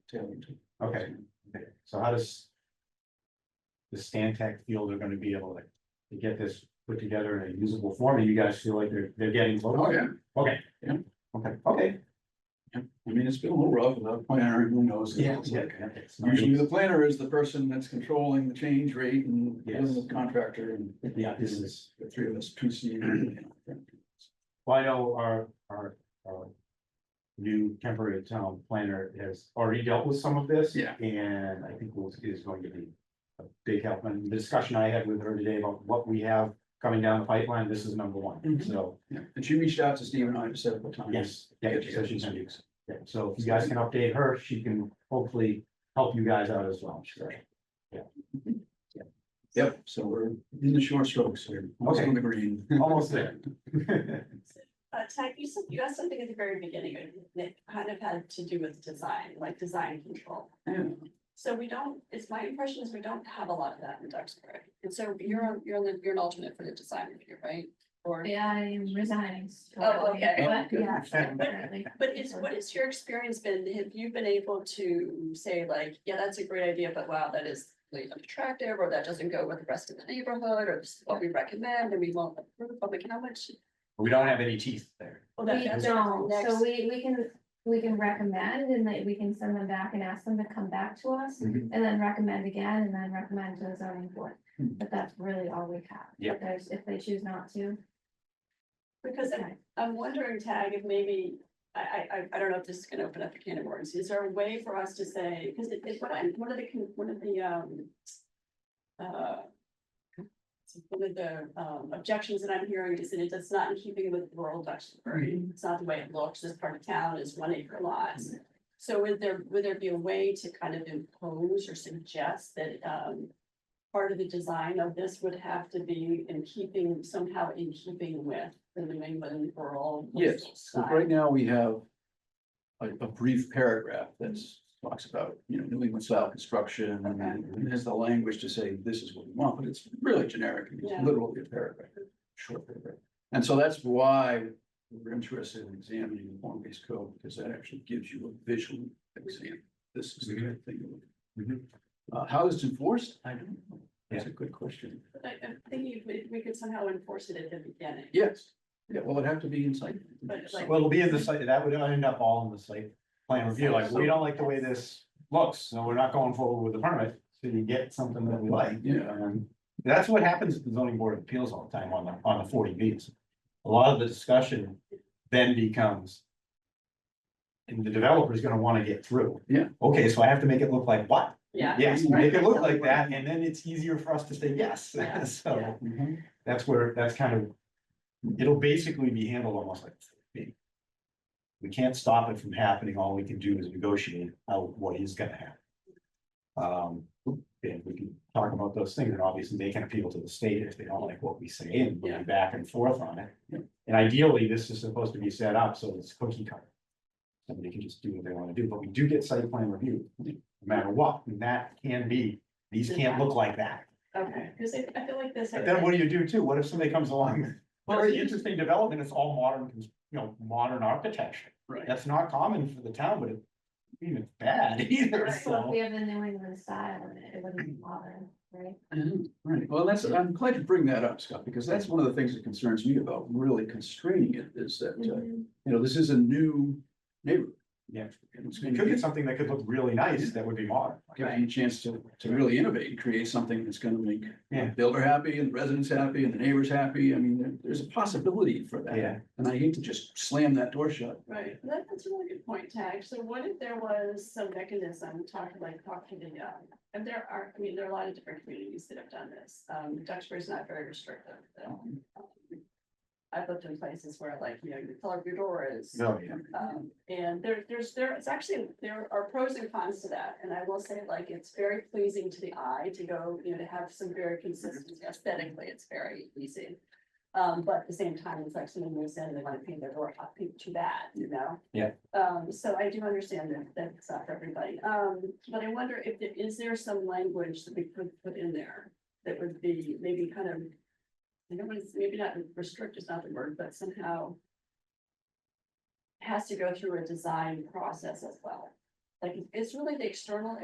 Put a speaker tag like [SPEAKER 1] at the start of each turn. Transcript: [SPEAKER 1] Okay, so how does? The Stantec feel they're gonna be able to, to get this put together in a usable form, and you guys feel like they're, they're getting close?
[SPEAKER 2] Oh, yeah,
[SPEAKER 1] Okay.
[SPEAKER 2] Yeah.
[SPEAKER 1] Okay, okay.
[SPEAKER 2] I mean, it's been a little rough without a planner, who knows? Usually the planner is the person that's controlling the change rate and
[SPEAKER 1] Yes.
[SPEAKER 2] the contractor and
[SPEAKER 1] Yeah, this is,
[SPEAKER 2] the three of us, two C. you know.
[SPEAKER 1] well, I know our, our, our. New temporary town planner has already dealt with some of this.
[SPEAKER 2] Yeah.
[SPEAKER 1] And I think will is going to be a big help, and the discussion I had with her today about what we have coming down the pipeline, this is number one,
[SPEAKER 2] Mhm.
[SPEAKER 1] so.
[SPEAKER 2] Yeah, And she reached out to Steve and I at several times.
[SPEAKER 1] Yes, yeah, so she's gonna use, yeah, so if you guys can update her, she can hopefully help you guys out as well, sure.
[SPEAKER 2] Yep, so we're in the short strokes here. Almost
[SPEAKER 1] Okay.
[SPEAKER 2] on the green.
[SPEAKER 1] Almost there.
[SPEAKER 3] Uh, Tag, you said, you asked something at the very beginning, and it kind of had to do with design, like design control.
[SPEAKER 2] Yeah.
[SPEAKER 3] So we don't, it's my impression is we don't have a lot of that in Duxbury, and so you're, on- you're, on the- you're an alternate for the design review, right? Or,
[SPEAKER 4] Yeah, I am resigning.
[SPEAKER 3] Oh, okay.
[SPEAKER 4] But, yeah. definitely.
[SPEAKER 3] but is, what has your experience been, have you been able to say like, yeah, that's a great idea, but wow, that is really unattractive, or that doesn't go with the rest of the neighborhood, or this is what we recommend, and we won't approve, I'm like, how much?
[SPEAKER 1] We don't have any teeth there.
[SPEAKER 3] well, oh, that-
[SPEAKER 4] We
[SPEAKER 3] that's
[SPEAKER 4] don't,
[SPEAKER 3] next-
[SPEAKER 4] so we, we can, we can recommend and like we can send them back and ask them to come back to us.
[SPEAKER 1] Mhm.
[SPEAKER 4] And then recommend again and then recommend to the zoning board,
[SPEAKER 2] Hmm.
[SPEAKER 4] but that's really all we have.
[SPEAKER 1] Yep.
[SPEAKER 4] If There's, if they choose not to.
[SPEAKER 3] Because I- I'm wondering, Tag, if maybe, I, I, I, I don't know if this is gonna open up a can of worms, is there a way for us to say, because it, it, what I, one of the, con- one of the, um. Uh. One of the, um, objections that I'm hearing is that it does not in keeping with rural Duxbury, it's not the way it looks, this part of town is one acre lots. So would there, would there be a way to kind of impose or suggest that, um. Part of the design of this would have to be in keeping, somehow in keeping with the New England rural.
[SPEAKER 2] Yes,
[SPEAKER 3] coastal
[SPEAKER 2] So
[SPEAKER 3] style?
[SPEAKER 2] right now we have a, a brief paragraph that's talks about, you know, New England style construction and then there's the language to say this is what we want, but it's really generic. and It's
[SPEAKER 3] Yeah.
[SPEAKER 2] literally a paragraph, short paragraph. And so that's why we're interested in examining the form-based code because that actually gives you a visual example. This is the good thing.
[SPEAKER 1] Mhm.
[SPEAKER 2] Uh, how is it enforced? I don't know. That's a good question.
[SPEAKER 3] I, I'm thinking if we could somehow enforce it at the beginning.
[SPEAKER 2] Yes. Yeah, well, it'd have to be inside.
[SPEAKER 3] But like-
[SPEAKER 1] Well, it'll be in the site, that would end up all in the site plan review, like, we don't like the way this looks, so we're not going forward with the permit, so you get something that we like.
[SPEAKER 2] Yeah.
[SPEAKER 1] And that's what happens at the zoning board of appeals all the time on the, on the forty Bs. A lot of the discussion then becomes. And the developer's gonna wanna get through.
[SPEAKER 2] Yeah.
[SPEAKER 1] Okay, so I have to make it look like what?
[SPEAKER 3] Yeah.
[SPEAKER 1] Yes, make it look like that, and then it's easier for us to say yes,
[SPEAKER 3] Yeah, yeah.
[SPEAKER 1] so that's where, that's kind of. It'll basically be handled almost like. 40B. We can't stop it from happening, all we can do is negotiate out what is gonna happen. Um, and we can talk about those things, and obviously they can appeal to the state if they don't like what we say, and we'll
[SPEAKER 3] Yeah.
[SPEAKER 1] be back and forth on it.
[SPEAKER 2] Yeah.
[SPEAKER 1] And ideally, this is supposed to be set up, so it's cookie cutter. Somebody can just do what they wanna do, but we do get site plan review, no matter what, and that can be, these can't look like that.
[SPEAKER 3] Okay, because I, I feel like this.
[SPEAKER 1] But then what do you do too? What if somebody comes along, with
[SPEAKER 2] Well,
[SPEAKER 1] very
[SPEAKER 2] it's-
[SPEAKER 1] interesting development, it's all modern, cons- you know, modern architecture.
[SPEAKER 2] Right.
[SPEAKER 1] That's not common for the town, but it, I mean, it's bad either,
[SPEAKER 3] Right.
[SPEAKER 4] So if
[SPEAKER 1] so.
[SPEAKER 4] we have the New England style, in it it wouldn't bother, right?
[SPEAKER 2] Mhm, Right, well, that's, I'm glad you bring that up, Scott, because that's one of the things that concerns me about really constraining it is that, uh,
[SPEAKER 4] Mm-hmm.
[SPEAKER 2] you know, this is a new neighborhood.
[SPEAKER 1] Yeah.
[SPEAKER 2] And it's
[SPEAKER 1] It
[SPEAKER 2] gonna
[SPEAKER 1] could
[SPEAKER 2] give
[SPEAKER 1] be something that could look really nice that would be modern.
[SPEAKER 2] you a chance to, to really innovate and create something that's gonna make the
[SPEAKER 1] Yeah.
[SPEAKER 2] builder happy and the residents happy and the neighbors happy. I mean, there- there's a possibility for that.
[SPEAKER 1] Yeah.
[SPEAKER 2] And I hate to just slam that door shut.
[SPEAKER 3] Right, that, that's a really good point, Tag. So what if there was some mechanism, talking like, talking to the, um, and there are, I mean, there are a lot of different communities that have done this. Um, Duxbury's not very restrictive. though. I've lived in places where like, you know, you color your doors.
[SPEAKER 1] No, Oh, yeah.
[SPEAKER 3] Um, and there, there's, there, it's actually, there are pros and cons to that, and I will say, like, it's very pleasing to the eye to go, you know, to have some very consistent aesthetically, it's very easy. Um, but at the same time, it's like someone moves in and they wanna paint their door hot pink too bad, you know?
[SPEAKER 1] Yeah.
[SPEAKER 3] Um, so I do understand that, that's not for everybody, um, but I wonder if, there- is there some language that we could put in there? That would be maybe kind of, I don't want to, maybe not restrict is not the word, but somehow has to go through a design process as well. Like, it's really the external